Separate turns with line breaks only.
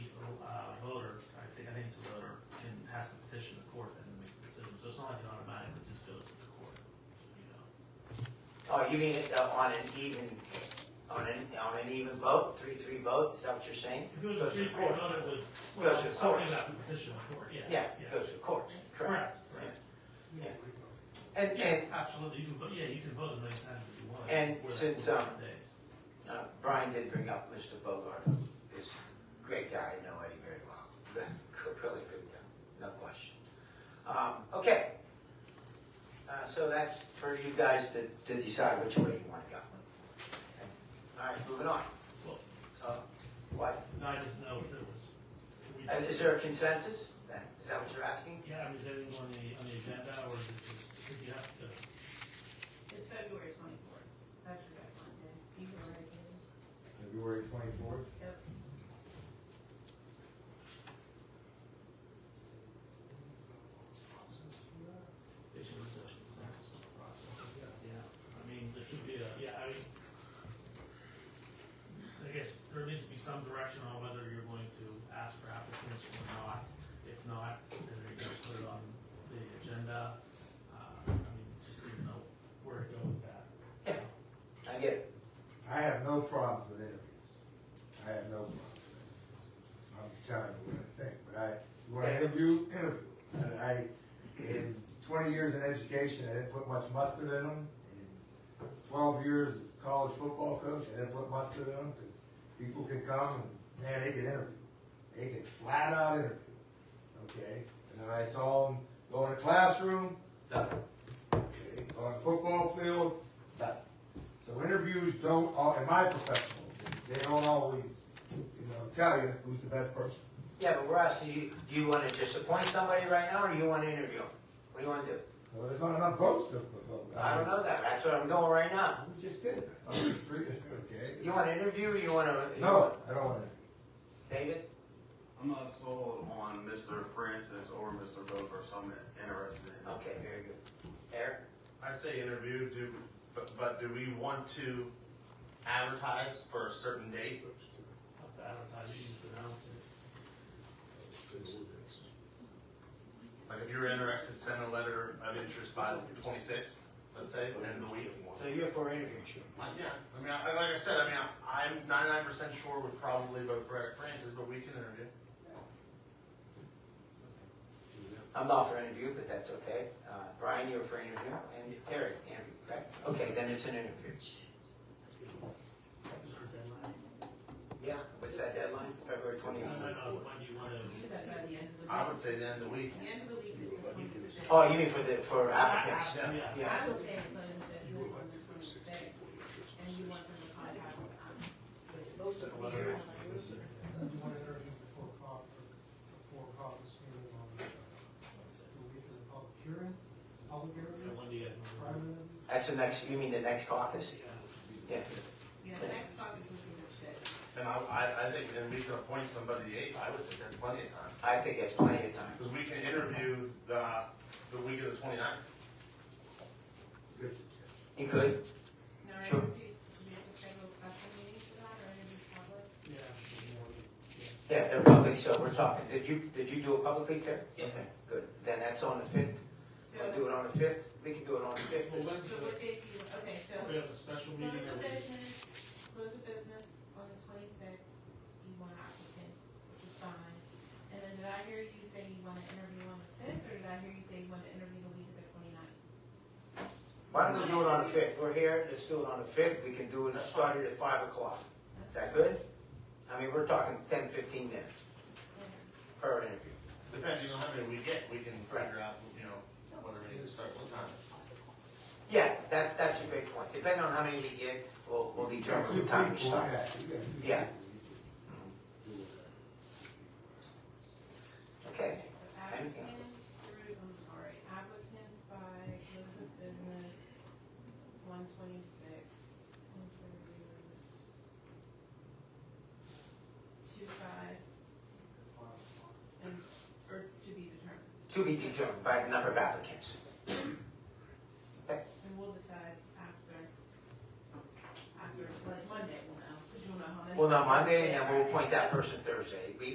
You mean uh, on an even, on an, on an even vote, three-three vote, is that what you're saying?
If it was a three four vote, it would, well,
Goes to
something
court.
about the petition of court, yeah.
Yeah, it goes to court, correct.
Correct, right.
And,
Yeah,
and
absolutely, you can, vote. yeah, you can vote as many times as you want.
And
before that
since,
45
um,
days.
uh, Brian did bring up Mr. Bogart, is a great guy, I know Eddie very well. Good, Really good guy, no question. Um, Okay. Uh, So that's for you guys to, to decide which way you want to go. Okay. All right, moving on.
Well,
Uh, What,
no, I didn't know if there was. if we-
Uh, is there a consensus? then? Is that what you're asking?
Yeah, I was anything on the, on the agenda, or is it just, if you have to,
It's February twenty-fourth. That's your deadline. You can already get it.
February twenty-fourth?
Yep.
if you have to, consensus on the process. Yeah, I mean, there should be a, yeah, I mean, I guess there needs to be some direction on whether you're going to ask for applicants or not. If not, then you're gonna put it on the agenda. Uh, I mean, just need to know where to go with that.
Yeah. I get it.
I have no problems with interviews. I have no problems. with interviews. I'm just telling you what I think, but I, you wanna interview, interview. And I, in twenty years in education, I didn't put much mustard in them. In Twelve years as college football coach, I didn't put mustard in them, cause people can come and, man, they can interview. They can flat out interview, okay? And then I saw them go in the classroom, done. Okay, on the football field, done. So interviews don't, al- in my professional, opinion, they don't always, you know, tell you who's the best person.
Yeah, but we're asking you, do you want to just appoint somebody right now, or do you want to interview them? What do you want to do?
Well, there's not enough votes to vote.
I don't know that, that's what I'm doing right now.
We just did. it. Oh, it's free, okay.
You want to interview, or you want to?
No, I don't want
David?
I'm not sold on Mr. Francis or Mr. Bover, so I'm interested in.
Okay, very good. Eric?
I say interview, do, but, but do we want to advertise for a certain date?
Have to advertise, you need to announce it.
Like if you're interested, send a letter of interest by the twenty-sixth, let's say, end of the week.
So you're for interview?
Like, yeah, I mean, I, like I said, I mean, I- I'm ninety-nine percent sure would probably vote for Eric Francis, but we can interview.
I'm not for interview, but that's okay. Uh, Brian, you're for interview, and Terry, interview, correct? Okay, then it's an interview. Yeah. What's that deadline? February
I don't
twenty-one?
know, when do you want to?
It's about the end of the
I
week.
would say the end of the week.
The end of the week is the twenty-fifth.
Oh, you mean for the, for applicants?
Yeah.
I
Yes.
would say it's on the twenty-fifth, on the twenty-sixth, and you want them to contact with us. Those of you.
one interview before call, before call this meeting on, we'll get to the public hearing, public
Yeah,
hearing,
when do you?
private interview.
That's the next, you mean the next caucus? Yeah.
Yeah, the next talk is looking at that.
And I, I, I think then we can appoint somebody the eighth, I would think there's plenty of time.
I think that's plenty of time.
Because we can interview the, the week of the twenty-ninth.
to. Good.
You could?
Now, are
Sure.
interviews, do we have to schedule a special meeting for that, or interview public?
Yeah.
Yeah, they're public, so we're talking, did you, did you do it publicly, Terry?
Yeah.
Okay, Good, then that's on the fifth. We'll do
So,
it on the fifth, we can do it on the fifth.
Well, when's
so
the,
what date do you, okay, so.
we have a special
Close
meeting
the
or we?
business, close the business on the twenty-sixth, you want applicants, which is fine. And then did I hear you say you wanna interview on the fifth, or did I hear you say you wanna interview the week of the twenty-ninth?
Why don't we do it on the fifth? We're here, let's do it on the fifth, we can do it, start it at five o'clock. Is that good? I mean, we're talking ten, fifteen minutes per interview.
Depending on how many we get, we can figure out, you know, whether we need to start what time.
Yeah, that, that's a great point. Depending on how many we get, we'll, we'll determine
Two
the time to
people,
start.
yeah, you got two
Yeah.
people.
Okay,
Applicants through, I'm sorry, applicants by close of business, one twenty-six, interviews. Two five. And, or to be determined.
to be determined by the number of applicants.
And we'll decide after, after, like Monday, we'll know, 'cause you'll know how many.
We'll know Monday, and we'll appoint that person Thursday. We,